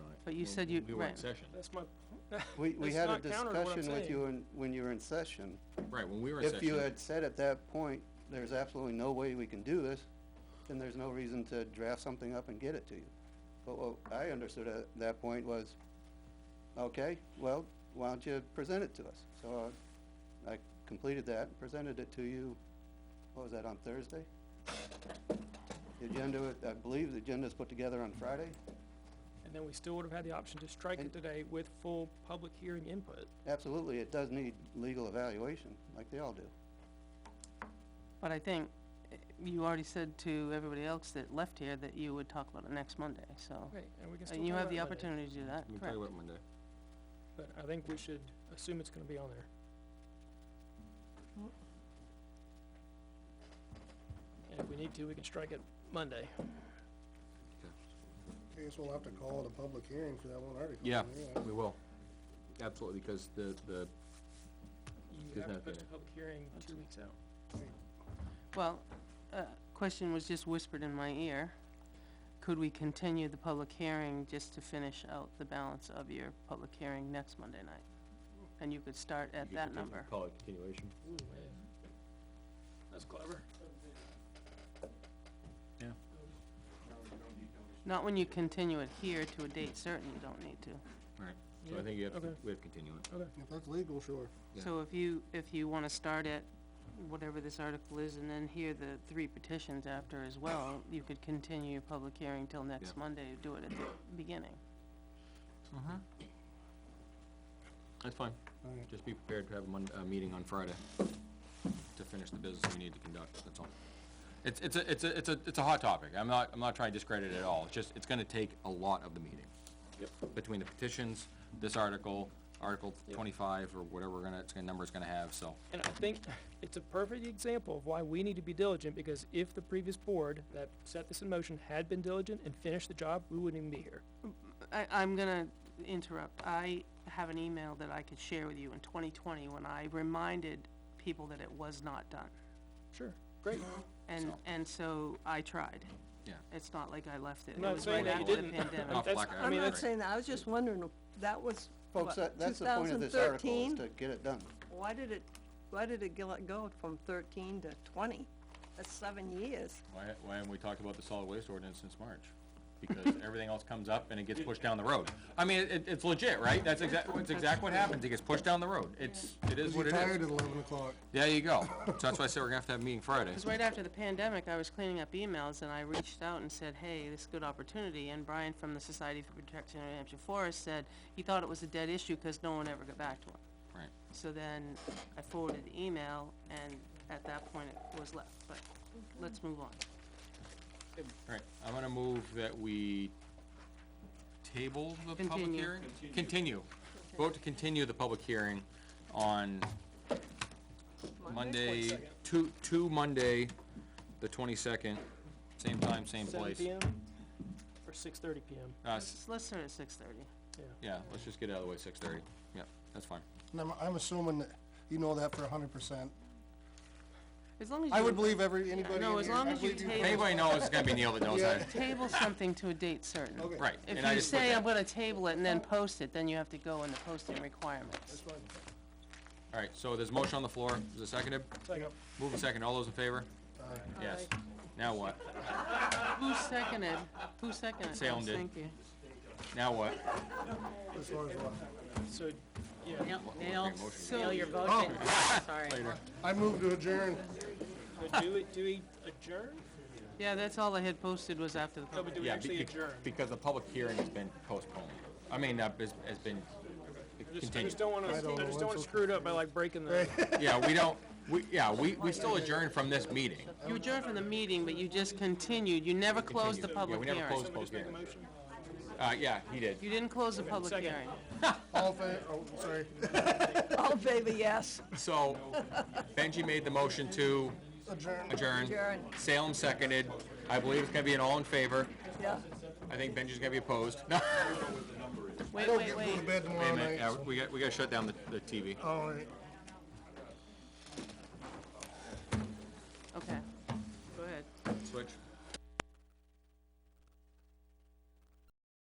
But you when- said you, when We were in right, session, That's my, We, we That's had a not counter to what I'm discussion with saying. you in, when you were in session. right, when we were in session. If you had said at that point, there's absolutely no way we can do this, then there's no reason to draft something up and get it to you. But what I understood at that point was, okay, well, why don't you present it to us? So uh, I completed that, and presented it to you, what was that, on Thursday? The agenda, wa- I believe the agenda's put together on Friday, and then we still would have had the option to strike it And- today with full public hearing input. Absolutely, it does need legal evaluation, like they all do. but I think eh, you already said to everybody else that left here that you would talk about it next Monday, so. Right, and we can still And you talk have about the it Monday, opportunity to do We that, can talk correct? about it Monday. But I think we should assume it's gonna be on there. And if we need to, we can strike it Monday. I guess we'll have to call it a public hearing for that one article. Yeah, we will, absolutely, because the, the, You Good have to enough, post yeah. a public hearing two weeks out. Well, uh, question was just whispered in my ear. Could we continue the public hearing just to finish out the balance of your public hearing next Monday night? And you could start you at could that continue- number. Call it continuation. Ooh, man. That's clever. Not when you continue it here to a date certain, you don't need to. Right. So I Yeah, think you have, to- okay. we have to continue it. If that's legal, sure. Yeah. So if you, if you wanna start at whatever this article is and then hear the three petitions after as well, you could continue your public hearing till next Yeah. Monday, do it at the beginning. That's fine, All right. just be prepared to have a Mon- a meeting on Friday to finish the business we need to conduct, that's all. It's, it's a, it's a, it's a, it's a hot topic, I'm not, I'm not trying to discredit it at all, it's just, it's gonna take a lot of the meeting. Yep. Between the petitions, this article, Article twenty-five, or whatever we're gonna, it's gonna, number it's gonna have, so. And I think it's a perfect example of why we need to be diligent, because if the previous board that set this in motion had been diligent and finished the job, we wouldn't even be here. I, I'm gonna interrupt. I have an email that I could share with you in twenty twenty when I reminded people that it was not done. Sure, great. And, So- and so I tried. Yeah. It's not like I left it. I'm It not was right saying that you after the didn't. pandemic. Off that's- black I iron, I'm mean, not right. saying that, I was just wondering, that was, Folks, that, that's the point of this article, is to 2013? get it done. why did it, why did it go- go from thirteen to twenty? That's seven years. Why, why haven't we talked about the solid waste ordinance since March? Because everything else comes up and it gets pushed down the road. I mean, it, it's legit, right? That's exact, that's exact what happens, it gets pushed down the road, it's, it is what it Tired at is. eleven o'clock. There you go, so that's why I said we're gonna have to have a meeting Friday. Because right after the pandemic, I was cleaning up emails and I reached out and said, hey, this is a good opportunity. And Brian from the Society for Protection of New Hampshire Forests said he thought it was a dead issue because no one ever got back to him. Right. So then I forwarded the email and at that point it was left, but let's move on. All right, I'm gonna move that we table the public Continue. hearing? Continue. Vote to continue the public hearing on Monday, to, to Monday, the twenty-second, same time, same Seven place. PM or six thirty PM, Uh, s- Let's start at six thirty. yeah. yeah, let's just get out of the way, six thirty, yep, that's fine. And I'm, I'm assuming that you know that for hundred percent. As long as you. I would believe every, anybody in No, here. as long I as you believe If table, anybody knows, it's gonna be Neil that knows that, table something to a date certain. Okay. right, and If I you just put say, I'm that, gonna table it and then post it, then you have to go in the posting requirements. alright, so there's a motion on the floor, is it seconded? Second. Move a second, all those in favor? Yes, now what, Who seconded? Who seconded? Salem Yes, did. Thank you. now what? As far as what? So, yeah, Nail, So- nail your voting, Oh, sorry. I move to adjourn. so do we, do we adjourn? Yeah, that's all I had posted was after the No, public. but do we Yeah, be- actually be- adjourn? Because the public hearing has been postponed. I mean, uh, has, has been Just- I continued. just don't wanna, I don't know just don't what's wanna screw it up by like breaking the, Yeah, we don't, we, yeah, we, we still adjourn from this meeting. You adjourned from the meeting, but you just continued. You never closed Continued. the Yeah, public we never hearing. closed the public just make a hearing. motion. Uh, yeah, he did. You didn't close the public second. hearing. All fa- oh, sorry. Oh, baby, yes, So Benji made the motion to Adjourn. adjourn. Adjourn. Salem seconded. I believe it's gonna be an all in favor. yeah. I think Benji's gonna be opposed. No, Wait, Don't wait, get to wait. bed wait tomorrow a minute, night. yeah, we got, we gotta shut down the, the TV. All right. Okay. Go ahead. Switch.